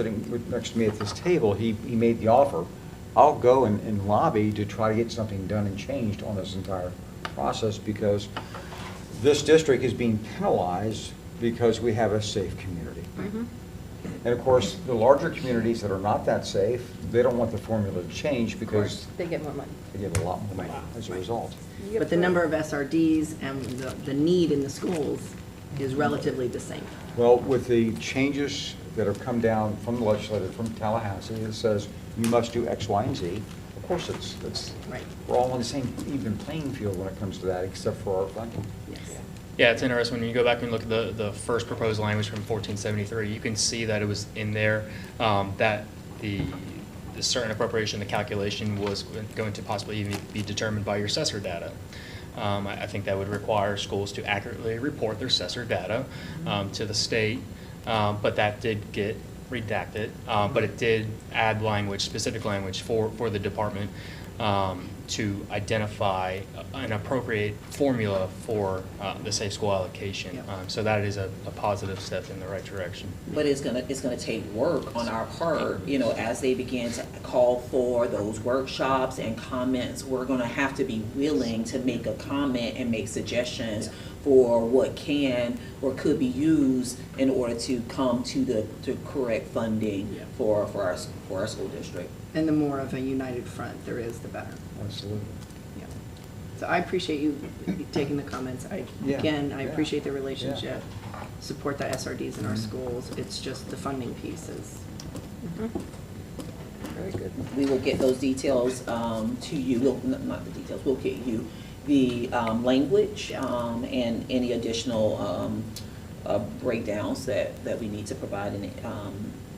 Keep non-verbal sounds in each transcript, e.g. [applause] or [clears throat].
sitting next to me at this table, he, he made the offer, I'll go and, and lobby to try to get something done and changed on this entire process because this district is being penalized because we have a safe community. And of course, the larger communities that are not that safe, they don't want the formula to change because They get more money. they get a lot more money as a result. But the number of SRDs and the, the need in the schools is relatively the same. Well, with the changes that have come down from the legislature, from Tallahassee, that says you must do X, Y, and Z, of course, it's, it's, Right. we're all on the same even playing field when it comes to that, except for our funding. Yes. Yeah, it's interesting, when you go back and look at the, the first proposed language from fourteen seventy-three, you can see that it was in there, um, that the, the certain appropriation, the calculation was going to possibly even be determined by your assessor data. Um, I, I think that would require schools to accurately report their assessor data, um, to the state, um, but that did get redacted, uh, but it did add language, specific language for, for the department, um, to identify an appropriate formula for, uh, the safe school allocation. Yeah. Um, so that is a, a positive step in the right direction. But it's gonna, it's gonna take work on our part, you know, as they begin to call for those workshops and comments, we're gonna have to be willing to make a comment and make suggestions for what can or could be used in order to come to the, to correct funding Yeah. for, for our, s- for our school district. And the more of a united front there is, the better. Absolutely. Mm-hmm. Yeah. So I appreciate you taking the comments. I, Yeah. again, I Yeah. appreciate the Yeah. Mm-hmm. relationship. Support the SRDs in our schools. It's just the funding pieces. Very good. We will get those details um, to you, We'll- n- not the details, we'll get you the um, language um, and any additional um, uh, breakdowns that, that we need to provide and, um,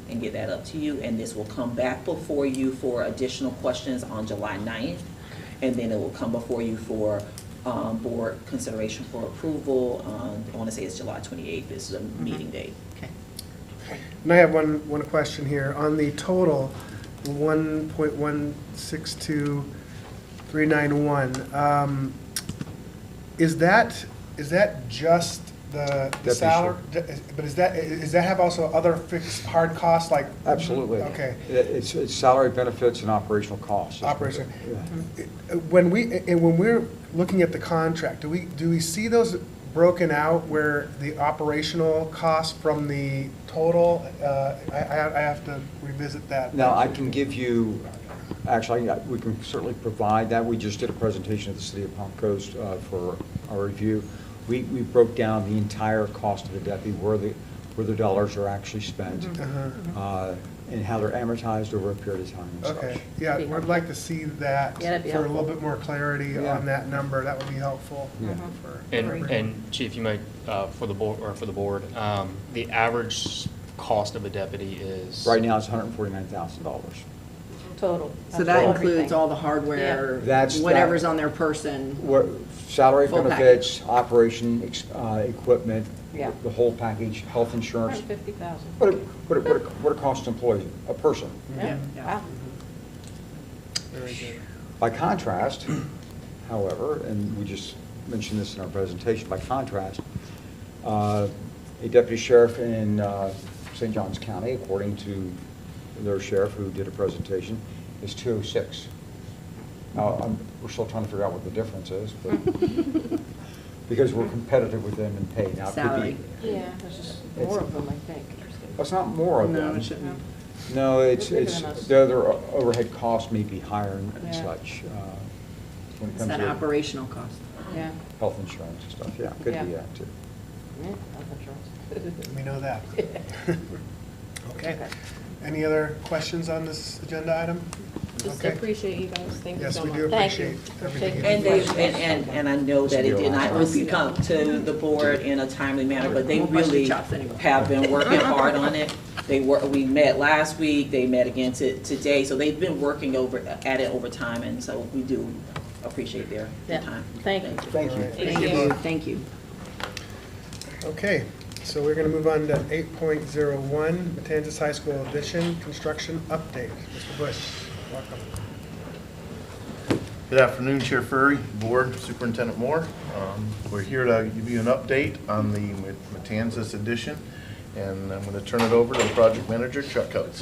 and get that up to you. And this will come back before you for additional questions on July 9th. And then it will come before you for um, board consideration for approval. um, I want to say it's July 28th is the meeting date. Okay. And I have one, one question here. On the total, one point one six two three nine one, um, is that, is that just the Deputy the salary? But is that, is that have also other fixed hard costs like? Absolutely. Okay. It- It's, it's salary benefits and operational costs. Operation. Yeah. When we, and when we're looking at the contract, do we, do we see those broken out where the operational cost from the total? Uh, I, I I have to revisit that. Now, I can give you, actually, I- we can certainly provide that. We just did a presentation at the City of Palm Coast uh, for our review. We, we broke down the entire cost of the deputy, where the, where the dollars are actually spent, Uh-huh. Mm-hmm. uh, and how they're amortized over a period of time and Okay, such. yeah, we'd like to see that Yeah, that'd be for a little helpful. Uh-huh. bit more clarity Yeah. on that number. That would be helpful. Yeah. for And, everyone. and Chief, you might, uh, for the board, or for the board, um, the average cost of a deputy is. Right now, it's $149,000. Total. So that Everything. includes all the hardware, Yeah. That's that- whatever's on their person. What, salary Full benefits, operation, ex- uh, equipment, Yeah. the whole package, health insurance. Hundred fifty thousand. What it, what it, what it- what it costs an employee, a person. Mm-hmm. Yeah, Yeah. wow. Very good. By contrast, [clears throat] however, and we just mentioned this in our presentation, by contrast, uh, a deputy sheriff in uh, St. John's County, according to their sheriff who did a presentation, is 206. Now, I'm- we're still trying to figure out what the difference is, but, because we're competitive with them in pay. Now, it could be- Salary. Yeah, there's just more of them, I think. It's not more of them. No, it shouldn't. No, it's, They're bigger it's, than us. their, their overhead costs may be higher and Yeah. such. uh, when it It's comes that to- operational cost. Yeah. health insurance and stuff, yeah, could Yeah. be that too. Yeah, [laughs] health insurance. We [laughs] know that. Okay. Okay. Any other questions on this agenda item? Just Okay. appreciate you guys, thank you Yes, so we much. do Thank you. appreciate Appreciate it. everything. you And do. they, and, and, and I know that it did not come to the board in a timely manner, but they really have [laughs] been working hard on it. They were, we met last week, they met again to, today, so they've been working over, at it over time, and so we do appreciate their, their Yeah. time. Thank you. Thank you. Thank you, thank you. Okay, so we're going to move on to eight point zero one, Matanzas High School addition construction update. Mr. Bush, welcome. Good afternoon, Chair Furry, Board, Superintendent Moore. Um, We're here to give you an update on the Matanzas addition And I'm going to turn it over to the project manager, Chuck Coates.